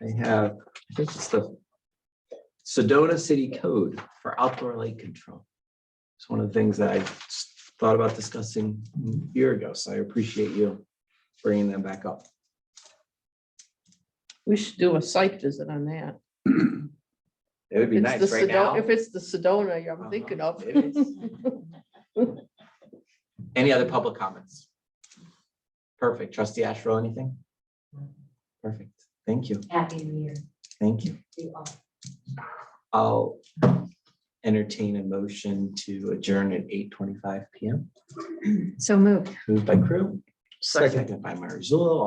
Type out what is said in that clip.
They have, I think it's the Sedona City Code for outdoor light control. It's one of the things that I s- thought about discussing a year ago, so I appreciate you bringing them back up. We should do a site visit on that. It would be It's nice the right Sedo- now. If it's the Sedona I'm Uh-huh, thinking of. it is. Any other public comments? Perfect. Trustee Ashrow, anything? Perfect. Thank you. Happy New Year Thank you. to you all. I'll entertain a motion to adjourn at eight twenty-five PM. So moved. Moved by Crew. Second. Seconded by Marzullo.